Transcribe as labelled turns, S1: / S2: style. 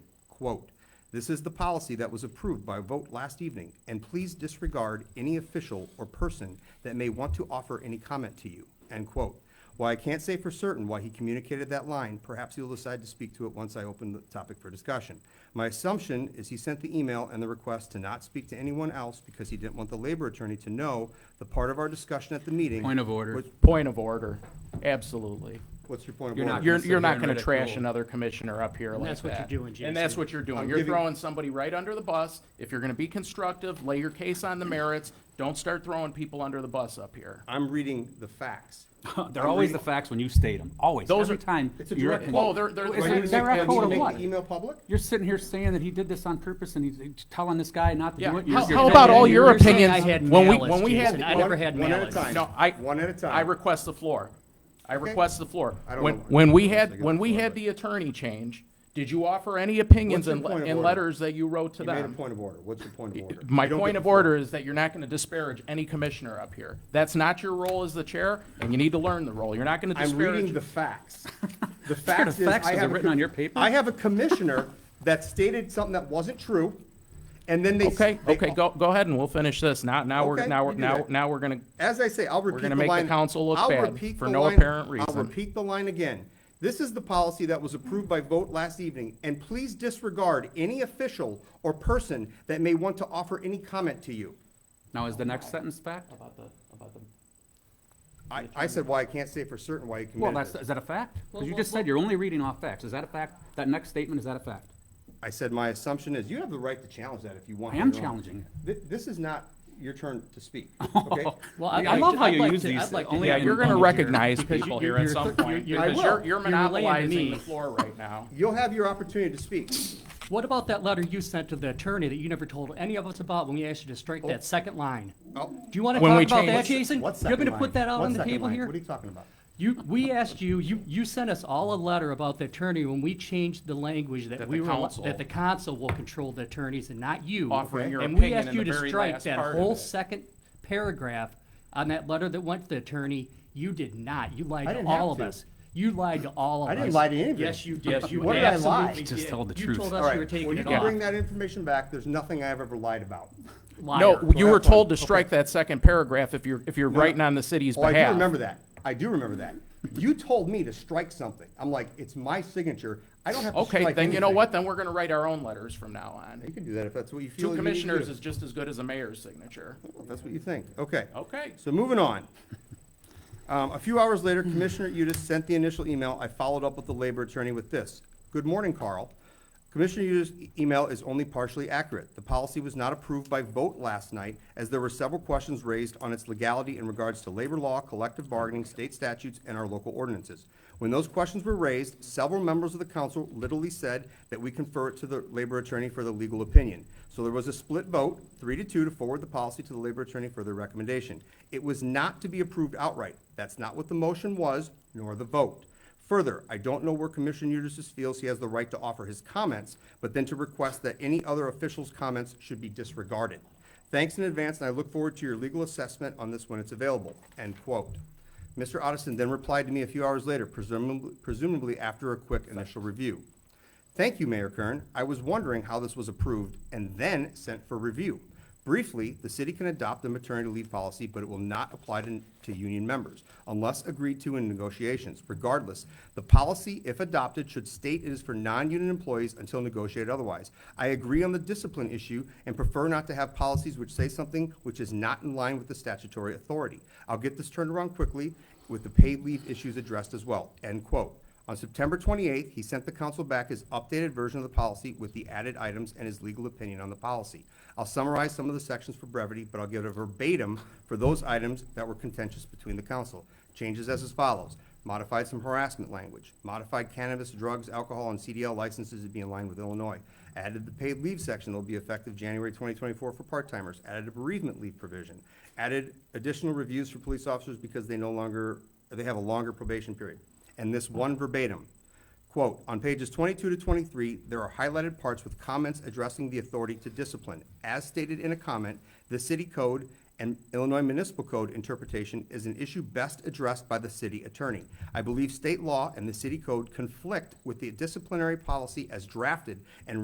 S1: quote, "This is the policy that was approved by vote last evening, and please disregard any official or person that may want to offer any comment to you," end quote. While I can't say for certain why he communicated that line, perhaps he'll decide to speak to it once I open the topic for discussion. My assumption is he sent the email and the request to not speak to anyone else because he didn't want the labor attorney to know the part of our discussion at the meeting.
S2: Point of order.
S1: was-
S3: Point of order, absolutely.
S1: What's your point of
S2: You're not
S1: order?
S3: You're,
S2: gonna sit
S3: you're
S2: here
S3: not
S2: and
S3: gonna
S2: read it
S3: trash
S2: through.
S3: another commissioner up here like that.
S4: that's what you're doing,
S2: And that's
S4: Jason.
S2: what you're
S1: I'm
S2: doing. You're
S1: giving-
S2: throwing somebody right under the bus. If you're gonna be constructive, lay your case on the merits. Don't start throwing people under the bus up here.
S1: I'm reading the facts.
S5: They're always the facts when you state them, always,
S2: Those
S5: every
S2: are-
S5: time.
S1: It's a
S5: you're-
S1: direct
S2: quote. Oh, they're- they're-
S5: It's
S2: Wait,
S5: a
S2: wait, wait,
S5: direct
S2: wait,
S5: quote
S2: wait,
S5: of
S2: wait,
S5: what?
S1: Make the email public?
S5: You're sitting here saying that he did this on purpose and he's he's telling this guy not to
S2: Yeah.
S5: do it.
S2: How-
S5: You're-
S2: how
S5: you're
S2: about
S5: saying-
S2: all your
S5: you're saying-
S2: opinion?
S4: I had
S2: When we-
S4: malice,
S2: when we had-
S4: Jason. I never had
S1: One at a
S4: malice.
S1: time.
S2: No, I.
S1: One at a time.
S2: I request the floor. I request the floor.
S1: I don't
S2: When,
S1: know.
S2: when we
S1: I
S2: had,
S1: got
S2: when
S1: the
S2: we
S1: floor,
S2: had
S1: but-
S2: the attorney change, did you offer any
S1: What's
S2: opinions
S1: your
S2: and,
S1: point of
S2: and
S1: order?
S2: letters that you wrote to
S1: You made a
S2: them?
S1: point of order. What's your point of order?
S2: My
S1: You don't
S2: point
S1: get
S2: of
S1: the floor.
S2: order is that you're not gonna disparage any commissioner up here. That's not your role as the chair, and you need to learn the role. You're not gonna
S1: I'm reading
S2: disparage.
S1: the facts. The facts is,
S5: facts?
S1: I
S5: Is it
S1: have. a
S5: written
S1: co-
S5: on your paper?
S1: I have a commissioner that stated something that wasn't true, and then they. s-
S2: Okay,
S1: they-
S2: okay, go, go ahead and we'll finish this. Now, now we're,
S1: Okay,
S2: now, we're
S1: you do
S2: now,
S1: that.
S2: now we're gonna,
S1: As I say, I'll repeat the
S2: gonna
S1: line.
S2: make the council look
S1: I'll
S2: bad
S1: repeat
S2: for
S1: the
S2: no
S1: line-
S2: apparent
S1: I'll
S2: reason.
S1: repeat the line again. This is the policy that was approved by vote last evening, and please disregard any official or person that may want to offer any comment to you.
S5: Now, is the next sentence fact?
S1: I, I said why I can't say for certain why he
S5: Well,
S1: committed
S5: that's,
S1: it.
S5: is that a fact? Because you just said you're only reading off facts. Is that a fact? That next statement, is that a fact?
S1: I said my assumption is, you have the right to challenge that if you want.
S5: I am
S1: You're wrong.
S5: challenging.
S1: Thi- This is not your turn to speak, okay?
S4: Well,
S5: I
S4: I'd like
S5: love
S4: to-
S5: how
S4: I'd
S5: you
S4: like
S5: use
S4: to-
S5: these.
S4: I'd like to
S5: Only
S2: yeah,
S4: have-
S5: in
S2: you're gonna
S5: public here.
S2: recognize
S4: Because you-
S2: people here
S4: you're-
S2: at some
S4: you're-
S2: point.
S4: you're-
S2: Because
S1: I
S2: you're,
S1: will.
S2: you're
S4: You're relaying to
S2: monopolizing
S4: me.
S2: the floor right now.
S1: You'll have your opportunity to speak.
S4: What about that letter you sent to the attorney that you never told any of us about when we asked you to strike that second line?
S1: Oh.
S4: Do you want to
S2: When we
S4: talk about
S2: changed-
S4: that, Jason?
S1: What
S4: You're going
S1: second
S4: to put
S1: line?
S4: that out
S1: What
S4: on the
S1: second
S4: table
S1: line?
S4: here?
S1: What are you talking about?
S4: You, we asked you, you, you sent us all a letter about the attorney when we changed the language that
S2: That
S4: we
S2: the
S4: were,
S2: council-
S4: that the council will control the attorneys and not you.
S2: Offering your
S4: And we
S2: opinion
S4: asked
S2: in
S4: you
S2: the
S4: to
S2: very
S4: strike
S2: last
S4: that
S2: part of
S4: whole
S2: it.
S4: second paragraph on that letter that went to the attorney. You did not. You lied
S1: I
S4: to
S1: didn't have
S4: all of
S1: to.
S4: us. You lied to all of us.
S1: I didn't lie to anybody.
S4: Yes, you did. You
S1: What did I lie?
S4: absolutely
S5: Just
S4: did.
S5: told the
S4: You
S5: truth.
S4: told
S1: All
S4: us
S1: right,
S4: you were
S1: well,
S4: taking
S1: you
S4: it
S1: can
S4: off.
S1: bring that information back. There's nothing I have ever lied about.
S4: Liar.
S2: No, you
S1: Correct
S2: were
S1: one.
S2: told to strike that second paragraph if you're, if you're writing on the city's
S1: Oh, I
S2: behalf.
S1: do remember that. I do remember that. You told me to strike something. I'm like, it's my signature. I don't have to strike
S2: Okay, then you know
S1: anything.
S2: what? Then we're gonna write our own letters from now
S1: You
S2: on.
S1: can do that if that's what you feel.
S2: Two
S1: you need to
S2: commissioners
S1: do.
S2: is just as good as a mayor's signature.
S1: Well, That's what you think. Okay.
S2: Okay.
S1: So moving on. Um, a few hours later, Commissioner Udis sent the initial email. I followed up with the labor attorney with this. Good morning, Carl. Commissioner Udis' e- email is only partially accurate. The policy was not approved by vote last night, as there were several questions raised on its legality in regards to labor law, collective bargaining, state statutes, and our local ordinances. When those questions were raised, several members of the council literally said that we confer it to the labor attorney for the legal opinion. So there was a split vote, three to two, to forward the policy to the labor attorney for their recommendation. It was not to be approved outright. That's not what the motion was, nor the vote. Further, I don't know where Commissioner Eustace feels he has the right to offer his comments, but then to request that any other official's comments should be disregarded. Thanks in advance, and I look forward to your legal assessment on this when it's available." End quote. Mr. Otteson then replied to me a few hours later, presumably presumably after a quick initial review. Thank you, Mayor Kern. I was wondering how this was approved and then sent for review. Briefly, the city can adopt the maternity leave policy, but it will not apply to, to union members unless agreed to in negotiations. Regardless, the policy, if adopted, should state it is for non-union employees until negotiated otherwise. I agree on the discipline issue and prefer not to have policies which say something which is not in line with the statutory authority. I'll get this turned around quickly with the paid leave issues addressed as well." End quote. On September 28th, he sent the council back his updated version of the policy with the added items and his legal opinion on the policy. I'll summarize some of the sections for brevity, but I'll give it a verbatim for those items that were contentious between the council. Changes as as follows. Modified some harassment language. Modified cannabis, drugs, alcohol, and CDL licenses to be in line with Illinois. Added the paid leave section that will be effective January 2024 for part-timers. Added a bereavement leave provision. Added additional reviews for police officers because they no longer, they have a longer probation period and this one verbatim. Quote, "On pages 22 to 23, there are highlighted parts with comments addressing the authority to discipline. As stated in a comment, the city code and Illinois municipal code interpretation is an issue best addressed by the city attorney. I believe state law and the city code conflict with the disciplinary policy as drafted and